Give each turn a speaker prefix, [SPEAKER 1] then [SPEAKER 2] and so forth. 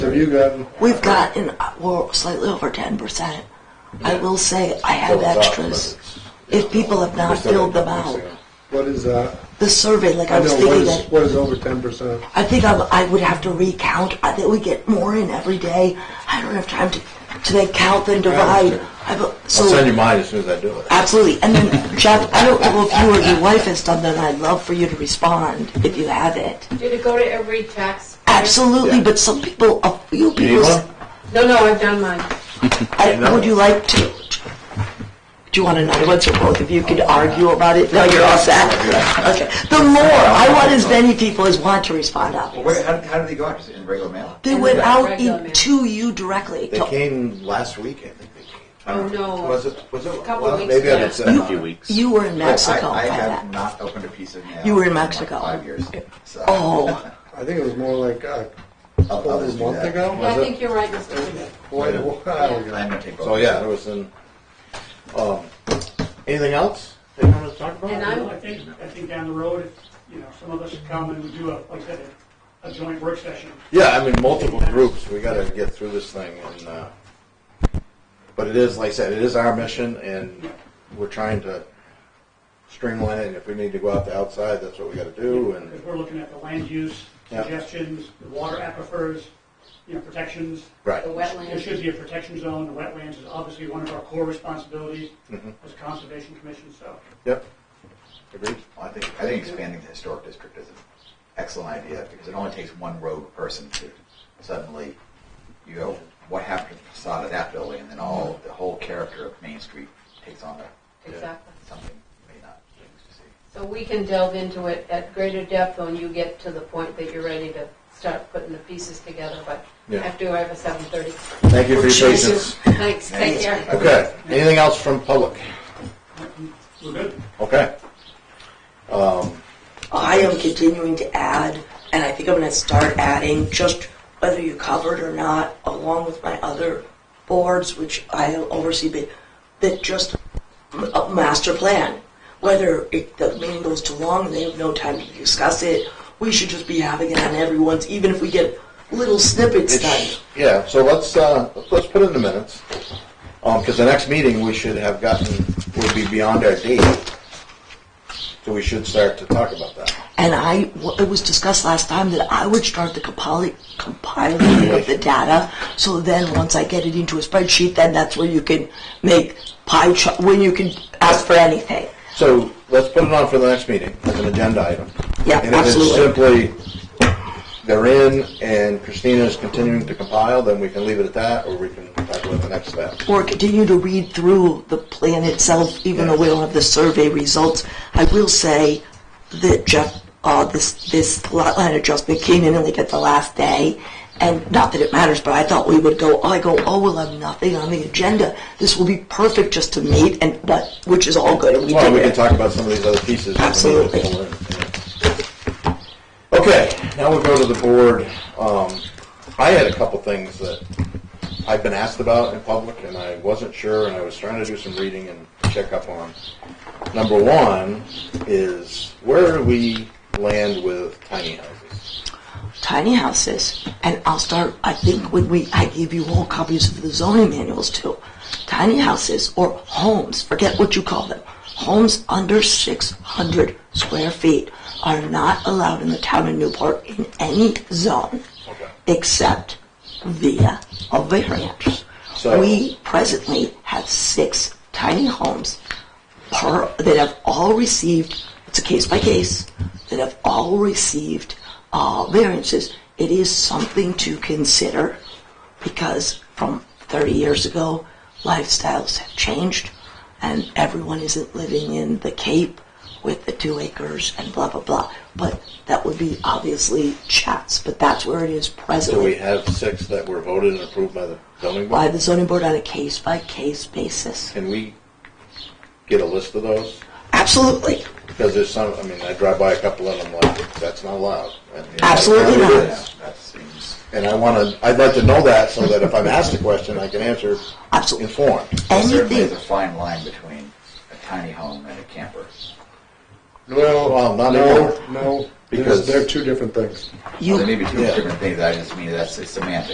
[SPEAKER 1] Have you gotten?
[SPEAKER 2] We've gotten, uh, we're slightly over ten percent. I will say, I have
[SPEAKER 3] Fill it up,
[SPEAKER 2] extras. If people have not
[SPEAKER 3] Just don't
[SPEAKER 2] filled them
[SPEAKER 3] make
[SPEAKER 2] out,
[SPEAKER 3] mistakes.
[SPEAKER 1] What is that?
[SPEAKER 2] the survey, like I
[SPEAKER 1] I
[SPEAKER 2] was
[SPEAKER 1] know what
[SPEAKER 2] thinking
[SPEAKER 1] is
[SPEAKER 2] that,
[SPEAKER 1] what is over ten percent.
[SPEAKER 2] I think I'm, I would have to recount, I think we get more in every day. I don't have time to, to then count and divide.
[SPEAKER 3] understand.
[SPEAKER 2] I have, a-
[SPEAKER 3] I'll send you
[SPEAKER 2] so,
[SPEAKER 3] mine as soon as I do it.
[SPEAKER 2] absolutely. And then Jeff, I don't know if you or your wife has done that, I'd love for you to respond if you have it.
[SPEAKER 4] Did it go to every tax?
[SPEAKER 2] Absolutely, but some people, a few
[SPEAKER 3] You need
[SPEAKER 2] people,
[SPEAKER 3] one?
[SPEAKER 4] No, no, I've done mine.
[SPEAKER 2] I, would you like to? Do you want an I one so both of you could argue about it? No, you're all set. Okay. The more, I want as many people as want to respond
[SPEAKER 5] Well,
[SPEAKER 2] out.
[SPEAKER 5] where, how, how did they go out? Just in regular mail?
[SPEAKER 2] They went out in, to you directly.
[SPEAKER 3] They
[SPEAKER 2] to-
[SPEAKER 3] came last week, I think they came. I
[SPEAKER 4] Oh,
[SPEAKER 3] don't know.
[SPEAKER 4] no.
[SPEAKER 3] Was it, was it?
[SPEAKER 4] Couple
[SPEAKER 3] well,
[SPEAKER 4] weeks
[SPEAKER 3] Maybe I
[SPEAKER 4] ago.
[SPEAKER 3] did send
[SPEAKER 2] You-
[SPEAKER 3] it.
[SPEAKER 2] You were in
[SPEAKER 5] Oh, I-
[SPEAKER 2] Mexico
[SPEAKER 5] I,
[SPEAKER 2] by
[SPEAKER 5] have
[SPEAKER 2] that.
[SPEAKER 5] not opened a piece of mail.
[SPEAKER 2] You were in
[SPEAKER 5] like
[SPEAKER 2] Mexico.
[SPEAKER 5] five years. So.
[SPEAKER 2] Oh,
[SPEAKER 1] I think it was more like uh,
[SPEAKER 5] I'll
[SPEAKER 1] over a
[SPEAKER 5] just do
[SPEAKER 1] month
[SPEAKER 5] that.
[SPEAKER 1] ago.
[SPEAKER 4] Yeah, I
[SPEAKER 1] Was it?
[SPEAKER 4] think you're right, Mr. Bennett.
[SPEAKER 1] Quite a while
[SPEAKER 5] I'm
[SPEAKER 1] ago.
[SPEAKER 5] gonna take over.
[SPEAKER 3] So, Oh, yeah, it was in, um, anything else that you want to talk about?
[SPEAKER 4] And I'm-
[SPEAKER 6] I think, I think down the road, you know, some of us would come and we do a, like I said, a joint work session.
[SPEAKER 3] Yeah, I mean, multiple groups, we gotta get through this thing and, uh, but it is, like I said, it is our mission and we're trying to streamline it and if we need to go out the outside, that's what we gotta do and,
[SPEAKER 6] Because we're looking at the land use
[SPEAKER 3] Yeah.
[SPEAKER 6] suggestions, the water aquifers, you know, protections.
[SPEAKER 3] right.
[SPEAKER 4] The
[SPEAKER 6] There
[SPEAKER 4] wetlands.
[SPEAKER 6] should be a protection zone, the wetlands is obviously one of our core responsibilities
[SPEAKER 3] Mm-hmm.
[SPEAKER 6] as a conservation commission, so.
[SPEAKER 3] Yep. Agreed.
[SPEAKER 5] I think I think expanding the historic district is an excellent idea because it only takes one rogue person to suddenly you go, what happened to the facade of that building, and then all the whole character of Main Street takes on a,
[SPEAKER 4] Exactly.
[SPEAKER 5] something you may not used to see.
[SPEAKER 4] So we can delve into it at greater depth when you get to the point that you're ready to start putting the pieces together, but
[SPEAKER 3] Yeah.
[SPEAKER 4] after I have a seven thirty.
[SPEAKER 3] Thank you for your patience.
[SPEAKER 4] Thanks, take care.
[SPEAKER 3] Okay, anything else from public?
[SPEAKER 6] We're good.
[SPEAKER 3] Okay.
[SPEAKER 2] I am continuing to add, and I think I'm going to start adding just whether you covered or not, along with my other boards, which I oversee, but that just m- a master plan. Whether it, the meeting goes too long and they have no time to discuss it, we should just be having it on everyone's, even if we get little snippets done.
[SPEAKER 3] It's- Yeah, so let's, uh, let's put in the minutes, Um 'cause cause the next meeting we should have gotten would be beyond our date. So we should start to talk about that.
[SPEAKER 2] And I, w- it was discussed last time that I would start the compili- compiling of the data. So then, once I get it into a spreadsheet, then that's where you can make pie chart, when you can ask for anything.
[SPEAKER 3] So let's put it on for the next meeting as an agenda item.
[SPEAKER 2] Yeah,
[SPEAKER 3] And if it's
[SPEAKER 2] absolutely.
[SPEAKER 3] simply they're in and Christina's continuing to compile, then we can leave it at that or we can talk about the next step.
[SPEAKER 2] Or continue to read through the plan itself, even though we don't have the survey results. I will say that Jeff, uh, this, this lot line adjustment came in like at the last day. And not that it matters, but I thought we would go, I go, oh, we'll have nothing on the agenda. This will be perfect just to meet and, but, which is all good. and we
[SPEAKER 3] Well,
[SPEAKER 2] did
[SPEAKER 3] we can
[SPEAKER 2] it.
[SPEAKER 3] talk about some of these other pieces.
[SPEAKER 2] Absolutely.
[SPEAKER 3] Okay, now we go to the board. Um, I had a couple things that I've been asked about in public, and I wasn't sure, and I was trying to do some reading and check up on. Number one is, where do we land with tiny houses?
[SPEAKER 2] tiny houses, and I'll start. I think when we, I gave you all copies of the zoning manuals too. Tiny houses or homes, forget what you call them, homes under 600 square feet are not allowed in the town of Newport in any zone
[SPEAKER 3] Okay.
[SPEAKER 2] except via a variance.
[SPEAKER 3] So-
[SPEAKER 2] we presently have six tiny homes per, that have all received, it's a case by case, that have all received uh, variances. It is something to consider because from 30 years ago, lifestyles have changed and everyone isn't living in the Cape with the two acres and blah, blah, blah. But that would be obviously chats, but that's where it is
[SPEAKER 3] Do we
[SPEAKER 2] presently
[SPEAKER 3] have six that were voted and approved by the zoning
[SPEAKER 2] by
[SPEAKER 3] board?
[SPEAKER 2] the zoning board on a case by case basis.
[SPEAKER 3] Can we get a list of those?
[SPEAKER 2] Absolutely.
[SPEAKER 3] Because there's some, I mean, I drive by a couple of them, like, that's not allowed. And-
[SPEAKER 2] Absolutely
[SPEAKER 3] and it
[SPEAKER 2] not.
[SPEAKER 3] is.
[SPEAKER 5] That seems.
[SPEAKER 3] And I wanna, I'd like to know that so that if I'm asked a question, I can answer
[SPEAKER 2] Absolutely.
[SPEAKER 3] informed.
[SPEAKER 5] Certainly, there's a
[SPEAKER 2] Anything.
[SPEAKER 5] fine line between a tiny home and a camper.
[SPEAKER 3] Well, not anymore.
[SPEAKER 1] No, no,
[SPEAKER 3] Because-
[SPEAKER 1] because they're two different things.
[SPEAKER 2] You
[SPEAKER 5] there may be two
[SPEAKER 3] Yeah.
[SPEAKER 5] different things. I just mean that's it's semantics.